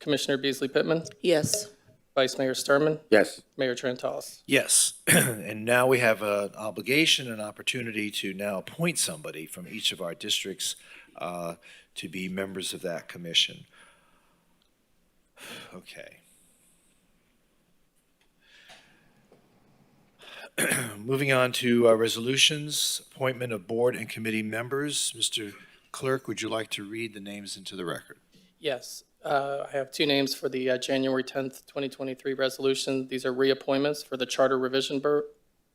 Commissioner Beasley Pittman, Yes. Vice Mayor Sturman, Yes. Mayor Trentalis. Yes, and now we have an obligation and opportunity to now appoint somebody from each of our districts uh, to be members of that commission. Okay. Moving on to uh, resolutions, appointment of board and committee members. Mr. Clerk, would you like to read the names into the record? Yes, uh, I have two names for the uh, January 10th, 2023 resolution. These are reappointments for the Charter Revision Board,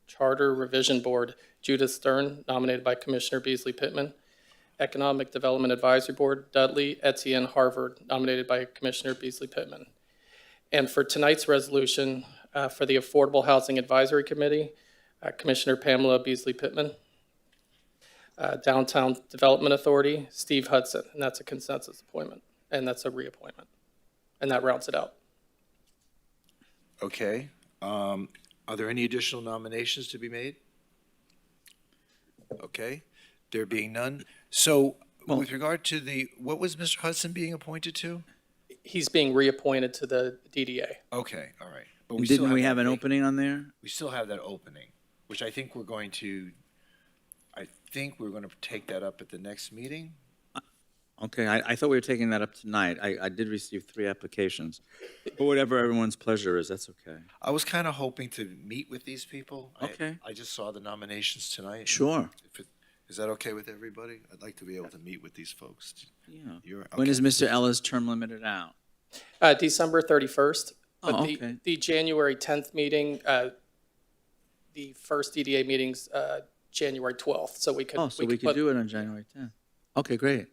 Charter Revision Board, Judith Stern, nominated by Commissioner Beasley Pittman. Economic Development Advisory Board, Dudley Etienne Harvard, nominated by Commissioner Beasley Pittman. And for tonight's resolution, uh, for the Affordable Housing Advisory Committee, uh, Commissioner Pamela Beasley Pittman. Uh, Downtown Development Authority, Steve Hudson, and that's a consensus appointment, and that's a reappointment. And that rounds it out. Okay. Um, Are there any additional nominations to be made? Okay, there being none. So with regard to the, what was Mr. Hudson being appointed to? He's being reappointed to the DDA. Okay, all right. But still Didn't we have an that vac- opening on there? We still have that opening, which I think we're going to, I think we're going to take that up at the next meeting. Okay, I, I thought we were taking that up tonight. I, I did receive three applications. But whatever everyone's pleasure is, that's okay. I was kind of hoping to meet with these people. I- Okay. I just saw the nominations tonight. Sure, If it- Is that okay with everybody? I'd like to be able to meet with these folks. yeah. You're- When okay. is Mr. Ella's term limited out? Uh, December 31st. but Oh, the- okay. The January 10th meeting, uh, the first DDA meeting's uh, January 12th, so we could. Oh, so we could put- do it on January 10th. Okay, great.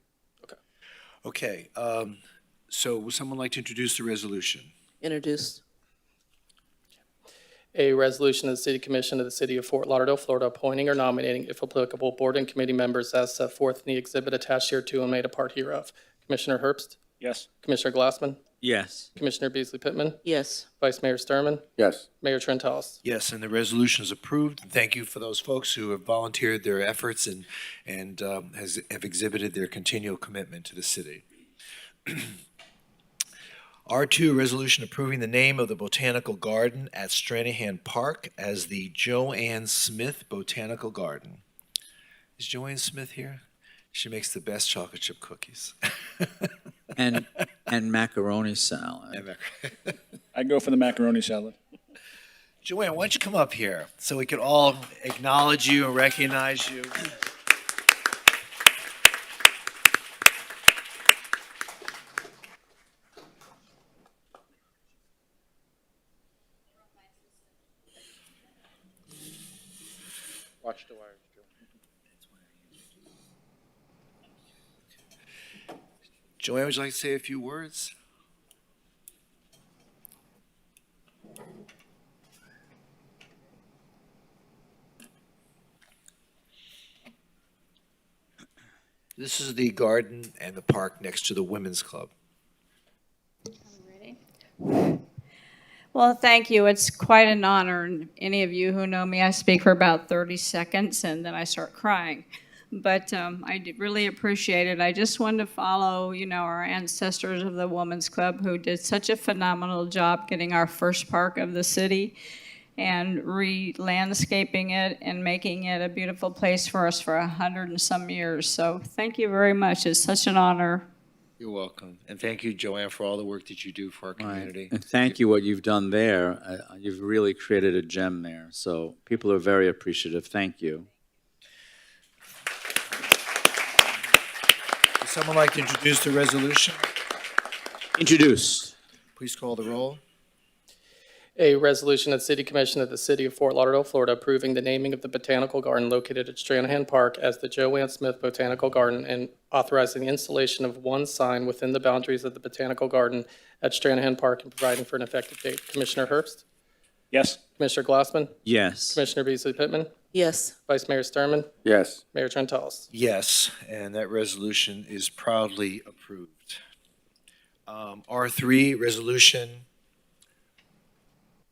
Okay, um, so would someone like to introduce the resolution? Introduced. A resolution of the City Commission of the City of Fort Lauderdale, Florida, appointing or nominating, if applicable, board and committee members as set forth in the exhibit attached here to and made a part hereof. Commissioner Herbst? yes, Commissioner Glassman? Yes, Commissioner Beasley Pittman? Yes. Vice Mayor Sturman, Yes. Mayor Trentalis. Yes, and the resolution is approved. Thank you for those folks who have volunteered their efforts and, and um, has, have exhibited their continual commitment to the city. R2, resolution approving the name of the Botanical Garden at Stranahan Park as the Joanne Smith Botanical Garden. Is Joanne Smith here? She makes the best chocolate chip cookies. and, and macaroni salad. I'd go for the macaroni salad. Joanne, why don't you come up here so we could all acknowledge you and recognize you? Watch the wires, Joe. Joanne, would you like to say a few words? This is the garden and the park next to the Women's Club. Ready? Well, thank you. It's quite an honor. And Any of you who know me, I speak for about 30 seconds and then I start crying. But um, I d- really appreciate it. I just wanted to follow, you know, our ancestors of the Women's Club who did such a phenomenal job getting our first park of the city and re-landscaping it and making it a beautiful place for us for a hundred and some years. So thank you very much. It's such an honor. You're welcome. And thank you, Joanne, for all the work that you do for our community. And thank you, what you've done there. Uh, You've really created a gem there. So people are very appreciative. Thank you. Would someone like to introduce the resolution? Introduced. Please call the roll. A resolution of the City Commission of the City of Fort Lauderdale, Florida, approving the naming of the Botanical Garden located at Stranahan Park as the Joanne Smith Botanical Garden and authorizing the installation of one sign within the boundaries of the Botanical Garden at Stranahan Park and providing for an effective date. Commissioner Herbst? Yes, Commissioner Glassman? Yes. Commissioner Beasley Pittman? Yes. Vice Mayor Sturman, Yes. Mayor Trentalis. Yes, and that resolution is proudly approved. Um, R3, resolution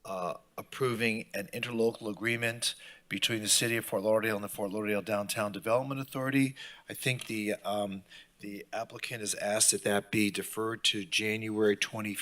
uh, approving an interlocal agreement between the City of Fort Lauderdale and the Fort Lauderdale Downtown Development Authority. I think the um, the applicant has asked that that be deferred to January 20